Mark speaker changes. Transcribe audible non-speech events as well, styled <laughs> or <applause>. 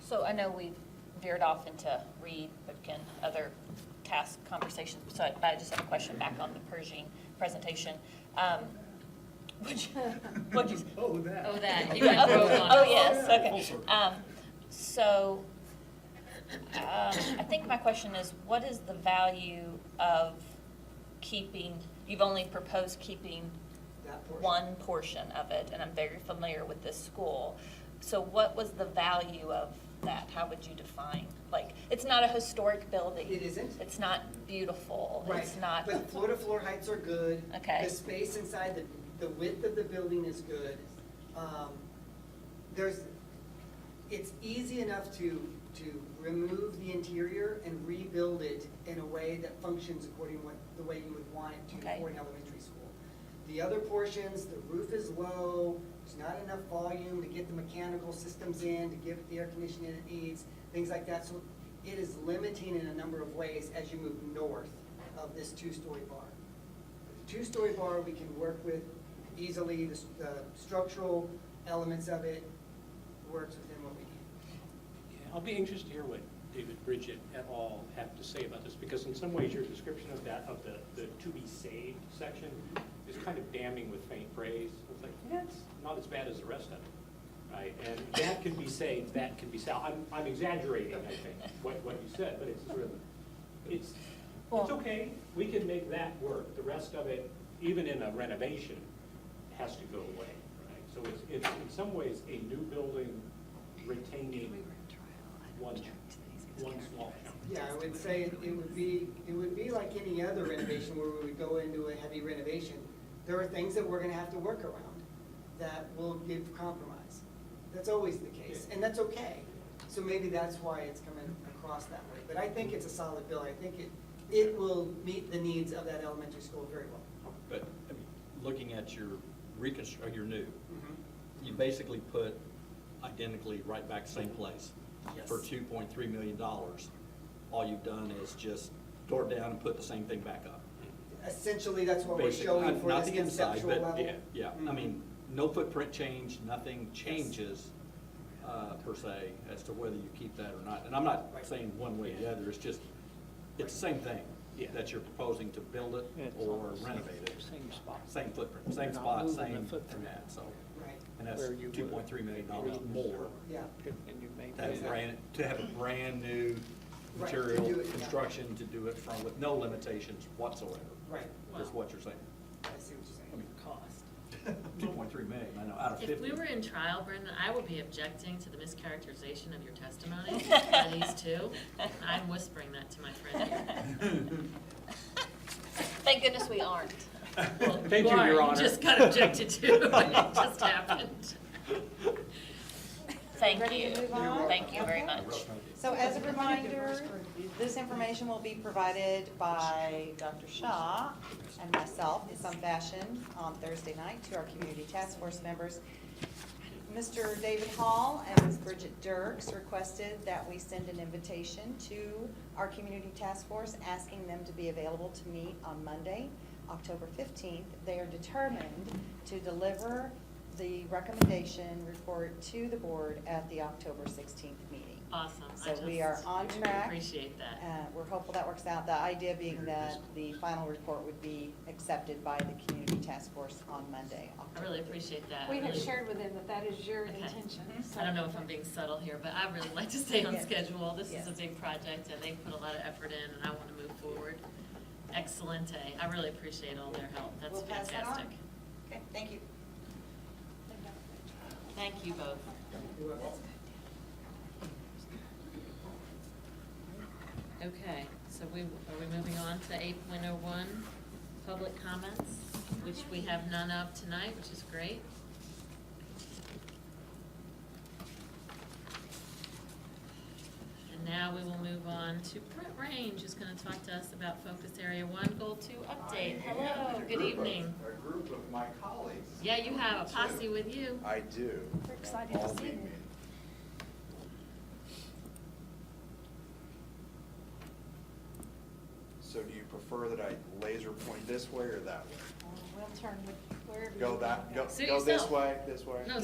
Speaker 1: So I know we veered off into Reed, but can other task conversations, so I- I just have a question back on the Pershing presentation. Um, <laughs> Would you, would you, <laughs>
Speaker 2: Oh, that.
Speaker 3: Oh, that, you got broke on.
Speaker 1: oh,
Speaker 3: us.
Speaker 1: yes,
Speaker 2: Full
Speaker 1: okay.
Speaker 2: circle.
Speaker 1: Um, So, um, I think my question is, what is the value of keeping, you've only proposed keeping
Speaker 4: That portion.
Speaker 1: one portion of it, and I'm very familiar with this school. So what was the value of that? How would you define? Like, it's not a historic building.
Speaker 4: It isn't.
Speaker 1: It's not beautiful.
Speaker 4: Right.
Speaker 1: It's not.
Speaker 4: But floor to floor heights are good.
Speaker 1: Okay.
Speaker 4: The space inside, the, the width of the building is good. Um, There's, it's easy enough to, to remove the interior and rebuild it in a way that functions according what, the way you would want it to
Speaker 1: Okay.
Speaker 4: for an elementary school. The other portions, the roof is low, there's not enough volume to get the mechanical systems in, to give it the air conditioning it needs, things like that. So it is limiting in a number of ways as you move north of this two-story bar. The Two-story bar, we can work with easily, the, s- the structural elements of it works within what we need.
Speaker 5: Yeah, I'll be anxious to hear what David Bridget et al. have to say about this, because in some ways, your description of that, of the, the to be saved section is kind of damning with faint praise. It's like, yeah, it's not as bad as the rest of it, right? And that can be saved, that can be salvaged. I'm, I'm exaggerating, I think, what, what you said, but it's sort of, it's, it's
Speaker 1: Well-
Speaker 5: okay, we can make that work. The rest of it, even in a renovation, has to go away, right? So it's, it's in some ways a new building retaining one, one small chunk.
Speaker 4: Yeah, I would say it it would be, it would be like any other renovation where we would go into a heavy renovation. There are things that we're gonna have to work around that will give compromise. That's always the case, and that's okay. So maybe that's why it's coming across that way. But I think it's a solid bill. I think it, it will meet the needs of that elementary school very well.
Speaker 6: But, I mean, looking at your reconstruct, your new, you basically put identically right back same place. For
Speaker 4: Yes.
Speaker 6: two point three million dollars, all you've done is just tore it down and put the same thing back up.
Speaker 4: Essentially, that's what we're
Speaker 6: Basically,
Speaker 4: showing
Speaker 6: not-
Speaker 4: for
Speaker 6: uh, not
Speaker 4: this
Speaker 6: the inside,
Speaker 4: conceptual
Speaker 6: but
Speaker 4: level.
Speaker 6: yeah, Yeah, I
Speaker 4: Mhm.
Speaker 6: mean, no footprint change, nothing changes, uh, per se, as to whether you keep that or not. And I'm not
Speaker 4: Right.
Speaker 6: saying one way or the other, it's just, it's the same thing
Speaker 5: Yeah.
Speaker 6: that you're proposing to build it or renovate it.
Speaker 7: Same spot.
Speaker 6: Same footprint, same
Speaker 7: You're not
Speaker 6: spot,
Speaker 7: moving the
Speaker 6: same,
Speaker 7: footprint.
Speaker 6: yeah, so,
Speaker 4: Right,
Speaker 6: and that's
Speaker 7: Where you would.
Speaker 6: two point three million dollars more.
Speaker 4: yeah.
Speaker 7: And you made
Speaker 6: That
Speaker 7: that.
Speaker 6: is brand, to have a brand-new
Speaker 4: Right, to
Speaker 6: material,
Speaker 4: do it, yeah.
Speaker 6: construction, to do it from, with no limitations whatsoever.
Speaker 4: Right.
Speaker 6: Is what you're saying.
Speaker 4: I see what you're
Speaker 6: I
Speaker 4: saying.
Speaker 6: mean, two point three million, I know, out of fifty.
Speaker 3: If we were in trial, Brendan, I would be objecting to the mischaracterization of your
Speaker 8: <laughs>
Speaker 3: testimony by these two. I'm whispering that to my friend here.
Speaker 1: <laughs> Thank goodness we aren't.
Speaker 3: Well,
Speaker 5: Thank you, Your
Speaker 3: Warren
Speaker 5: Honor.
Speaker 3: just got
Speaker 5: <laughs>
Speaker 3: objected to, and it just happened.
Speaker 1: Thank
Speaker 9: Ready
Speaker 1: you.
Speaker 9: to move on?
Speaker 1: Thank you very
Speaker 9: Okay.
Speaker 1: much.
Speaker 9: So as a reminder, this information will be provided by Dr. Shaw and myself in some fashion on Thursday night to our community task force members. Mr. David Hall and Ms. Bridget Dirks requested that we send an invitation to our community task force, asking them to be available to meet on Monday, October fifteenth. They are determined to deliver the recommendation report to the board at the October sixteenth meeting.
Speaker 3: Awesome. I
Speaker 9: So we are
Speaker 3: just
Speaker 9: on track.
Speaker 3: Appreciate that.
Speaker 9: Uh, We're hopeful that works out. The idea being that the final report would be accepted by the community task force on Monday,
Speaker 3: I
Speaker 9: October
Speaker 3: really appreciate that.
Speaker 8: We
Speaker 3: Really-
Speaker 8: have shared with him that that is your
Speaker 3: Okay. Mm-hmm.
Speaker 8: intention. so-
Speaker 3: I don't know if I'm being subtle here, but I really like to stay on
Speaker 9: Yes.
Speaker 3: schedule. This is a
Speaker 9: Yes.
Speaker 3: big project, and they put a lot of effort in, and I want to move forward. Excelente. I really appreciate all their help. That's
Speaker 9: We'll pass that on.
Speaker 3: fantastic.
Speaker 9: Okay, thank you.
Speaker 3: Thank you both.
Speaker 4: You're welcome.
Speaker 3: Okay, so we, are we moving on to eight point oh one, public comments, which we have none of tonight, which is great. And now we will move on to Brett Range, who's gonna talk to us about Focus Area One Goal Two
Speaker 1: Uh,
Speaker 3: update.
Speaker 10: I am
Speaker 3: Hello,
Speaker 10: with a
Speaker 3: good
Speaker 10: group of-
Speaker 3: evening.
Speaker 10: A group of my colleagues.
Speaker 3: Yeah, you have a posse with you.
Speaker 10: I do.
Speaker 8: We're excited to
Speaker 10: All
Speaker 8: see
Speaker 10: meet
Speaker 8: them.
Speaker 10: me. So do you prefer that I laser point this way or that way?
Speaker 8: We'll turn with wherever you.
Speaker 10: Go that,
Speaker 8: want.
Speaker 10: go,
Speaker 3: Suit
Speaker 10: go this
Speaker 3: yourself.
Speaker 10: way, this way?
Speaker 3: No,